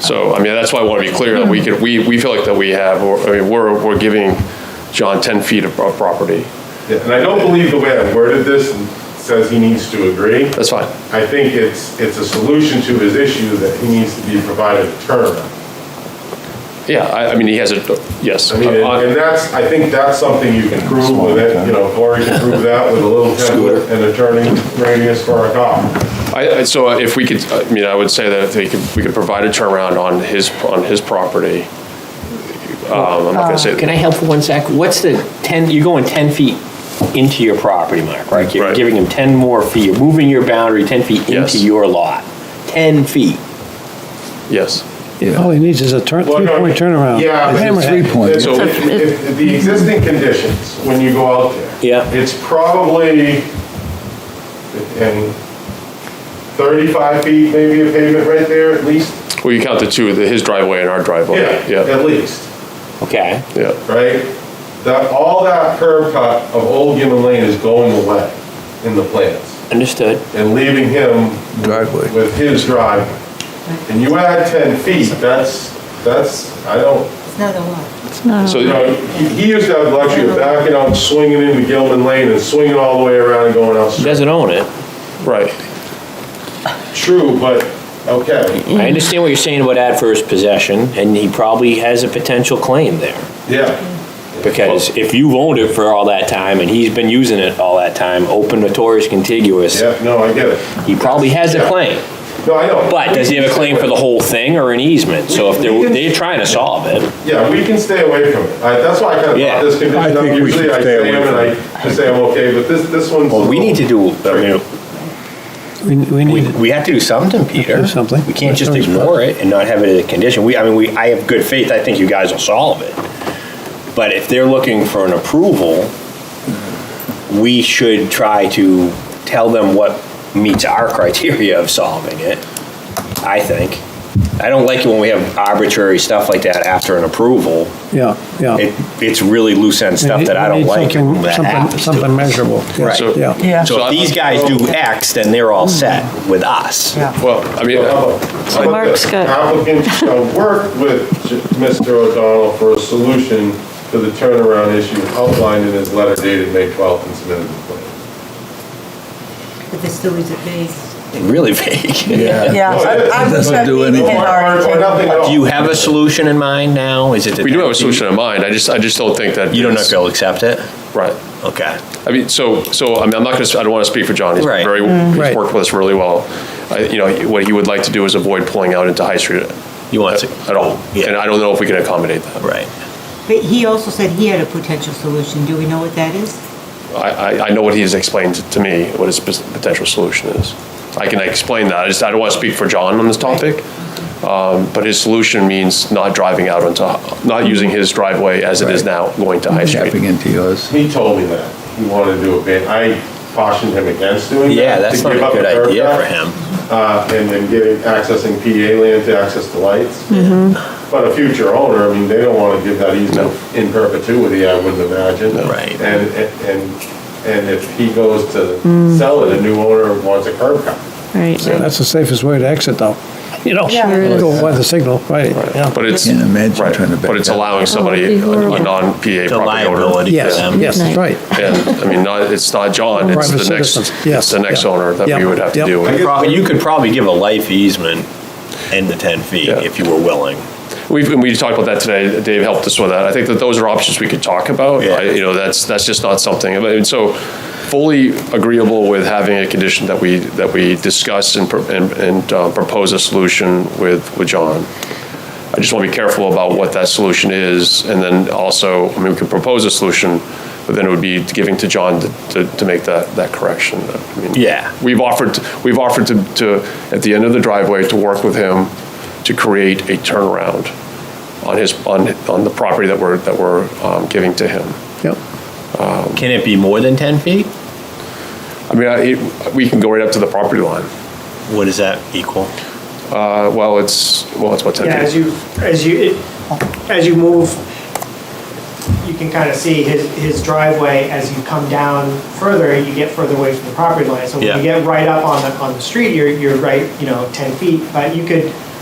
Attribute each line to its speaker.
Speaker 1: So, I mean, that's why I want to be clear, that we could, we, we feel like that we have, or, I mean, we're, we're giving John 10 feet of of property.
Speaker 2: Yeah, And I don't believe the way I worded this says he needs to agree.
Speaker 1: That's fine.
Speaker 2: I think it's, it's a solution to his issue that he needs to be provided a turnaround.
Speaker 1: Yeah, I, I mean, he has a, yes. Uh,
Speaker 2: I mean, and and that's, I think that's something you can prove with it, you know, Cory can prove that with a little template and a turning radius for a cop.
Speaker 1: I, I- so if we could, I mean, I would say that if they could, we could provide a turnaround on his, on his property. Um, I'm not gonna say,
Speaker 3: Uh, Can I help for one sec? What's the 10, you're going 10 feet into your property, Mark, right? You're
Speaker 1: Right.
Speaker 3: giving him 10 more feet, you're moving your boundary 10 feet
Speaker 1: Yes.
Speaker 3: into your lot. 10 feet.
Speaker 1: yes.
Speaker 4: All he needs is a turn,
Speaker 2: Well, no,
Speaker 4: three-point turnaround.
Speaker 2: Yeah. but it's-
Speaker 4: Three points.
Speaker 2: So if- if- if The existing conditions, when you go out there.
Speaker 3: Yeah.
Speaker 2: It's probably in 35 feet, maybe of pavement right there at least.
Speaker 1: Well, you count the two, the- his driveway and our driveway.
Speaker 2: Yeah,
Speaker 1: Yeah,
Speaker 2: at least,
Speaker 3: Okay,
Speaker 1: yeah.
Speaker 2: right? That, all that curb cut of Old Gilman Lane is going away in the plans
Speaker 3: understood.
Speaker 2: and leaving him
Speaker 5: Driveway.
Speaker 2: with his drive. And you add 10 feet, that's, that's, I don't,
Speaker 6: It's not a lot.
Speaker 1: So,
Speaker 2: you know, he- he used to have the luxury of backing out, swinging into Gilman Lane and swinging all the way around and going
Speaker 3: He
Speaker 2: out.
Speaker 3: doesn't own it.
Speaker 1: right,
Speaker 2: True, but, okay,
Speaker 3: I understand what you're saying about adverse possession, and he probably has a potential claim there.
Speaker 2: yeah.
Speaker 3: Because if you've owned it for all that time, and he's been using it all that time, open notorious contiguous,
Speaker 2: Yeah, no, I get it.
Speaker 3: he probably has a
Speaker 2: Yeah.
Speaker 3: claim.
Speaker 2: No, I know.
Speaker 3: But does he have a claim for the whole thing or an easement? So if they're, they're trying to solve it.
Speaker 2: Yeah, we can stay away from it. I- That's why I kind of
Speaker 3: Yeah.
Speaker 2: brought this
Speaker 5: I
Speaker 2: condition up.
Speaker 5: think we
Speaker 2: Usually
Speaker 5: should
Speaker 2: I
Speaker 5: stay
Speaker 2: say
Speaker 5: away
Speaker 2: them and
Speaker 5: from
Speaker 2: I just say I'm okay, but this, this one's.
Speaker 3: Well, we need to do, I mean,
Speaker 4: We we
Speaker 3: we,
Speaker 4: need,
Speaker 3: we have to do something, Peter.
Speaker 4: do something.
Speaker 3: We can't just
Speaker 4: Something's
Speaker 3: ignore it and not have it as a condition. We, I mean, we, I have good faith, I think you guys will solve it. But if they're looking for an approval, we should try to tell them what meets our criteria of solving it, I think. I don't like it when we have arbitrary stuff like that after an approval.
Speaker 4: yeah, yeah.
Speaker 3: It, it's really loose end stuff that I
Speaker 4: Oh. We
Speaker 3: don't
Speaker 4: need
Speaker 3: like.
Speaker 4: something-
Speaker 3: when that
Speaker 4: something-
Speaker 3: happens to
Speaker 4: Something
Speaker 3: us.
Speaker 4: measurable. Yeah,
Speaker 3: Right.
Speaker 1: So-
Speaker 4: Yeah.
Speaker 6: Yeah.
Speaker 3: So if these guys do X, then they're all set
Speaker 4: Mm-hmm.
Speaker 3: with us.
Speaker 1: well, I mean,
Speaker 2: Mark's got. Applicant shall work with Mr. O'Donnell for a solution to the turnaround issue outlined in his letter dated May 12th and submitted to the plan.
Speaker 6: But this still is a base.
Speaker 3: Really vague.
Speaker 6: Yeah.
Speaker 2: No, it
Speaker 6: I- I was
Speaker 5: doesn't
Speaker 6: gonna
Speaker 5: do
Speaker 6: be
Speaker 5: anything.
Speaker 6: in
Speaker 2: Or-
Speaker 6: our-
Speaker 2: or- or nothing at all.
Speaker 3: Do you have a solution in mind now? Is it? that
Speaker 1: we do have a
Speaker 3: that-
Speaker 1: solution in mind, I just, I just don't think that.
Speaker 3: You don't know if
Speaker 1: it's-
Speaker 3: they'll accept it?
Speaker 1: Right.
Speaker 3: Okay.
Speaker 1: I mean, so, so, I mean, I'm not going to, I don't want to speak for John. He's
Speaker 3: Right.
Speaker 1: very,
Speaker 7: Mm.
Speaker 1: he's
Speaker 4: Right.
Speaker 1: worked with us really well. I- You know, what he would like to do is avoid pulling out into High Street
Speaker 3: You want to?
Speaker 1: at all.
Speaker 3: Yeah.
Speaker 1: And I don't know if we can accommodate that.
Speaker 3: Right.
Speaker 6: But he also said he had a potential solution. Do we know what that is?
Speaker 1: I, I, I know what he has explained to me, what his pos- potential solution is. I can explain that, I just, I don't want to speak for John on this topic. Um, But his solution means not driving out onto, not using his driveway as it is now, going to High
Speaker 5: Tapping
Speaker 1: Street.
Speaker 5: into yours.
Speaker 2: He told me that. He wanted to do a ban. I cautioned him against doing that.
Speaker 3: Yeah,
Speaker 2: to
Speaker 3: that's not
Speaker 2: give
Speaker 3: a
Speaker 2: up
Speaker 3: good
Speaker 2: the curb
Speaker 3: idea
Speaker 2: cut,
Speaker 3: for him.
Speaker 2: uh, And then getting, accessing PA land to access the lights. But a future owner, I mean, they don't want to give that easement in perpetuity, I wouldn't imagine.
Speaker 3: Right.
Speaker 2: And, and, and if he goes to sell it, a new owner wants a curb cut.
Speaker 7: Right.
Speaker 4: That's the safest way to exit, though. You know,
Speaker 7: Sure it
Speaker 4: go by the signal, right, yeah.
Speaker 1: But it's,
Speaker 5: Can't imagine
Speaker 1: right,
Speaker 5: trying to back
Speaker 1: but it's
Speaker 5: up.
Speaker 1: allowing
Speaker 7: it'd
Speaker 1: somebody,
Speaker 7: be
Speaker 1: a
Speaker 7: horrible.
Speaker 1: non-PA
Speaker 3: The
Speaker 1: property owner.
Speaker 3: liability for
Speaker 4: Yes,
Speaker 3: them.
Speaker 4: yes,
Speaker 7: Midnight.
Speaker 4: right.
Speaker 1: And, I mean, not, it's not John, it's
Speaker 4: Private
Speaker 1: the next,
Speaker 4: citizens,
Speaker 1: it's
Speaker 4: yes,
Speaker 1: the next
Speaker 4: yeah.
Speaker 1: owner that
Speaker 4: Yep,
Speaker 1: we would have to
Speaker 4: yep.
Speaker 1: deal with.
Speaker 3: Probably- You could probably give a life easement in the 10 feet
Speaker 1: Yeah.
Speaker 3: if you were willing.
Speaker 1: We've, and we talked about that today, Dave helped us with that. I think that those are options we could talk about.
Speaker 3: Yeah.
Speaker 1: I- You know, that's, that's just not something, I mean, so fully agreeable with having a condition that we, that we discuss and, pro- and and, uh, propose a solution with, with John. I just want to be careful about what that solution is, and then also, I mean, we could propose a solution, but then it would be giving to John to- to, to make that, that correction. I mean,
Speaker 3: Yeah.
Speaker 1: We've offered, we've offered to, to, at the end of the driveway, to work with him to create a turnaround on his, on, on the property that we're, that we're um, giving to him.
Speaker 4: Yep.
Speaker 3: Can it be more than 10 feet?
Speaker 1: I mean, I, it- we can go right up to the property line.
Speaker 3: What does that equal?
Speaker 1: Uh, Well, it's, well, it's about
Speaker 8: Yeah, as
Speaker 1: 10 feet.
Speaker 8: you, as you, it- as you move, you can kind of see his, his driveway, as you come down further, you get further away from the property line. So when
Speaker 3: Yeah.
Speaker 8: you get right up on the, on the street, you're, you're right, you know, 10 feet, but you could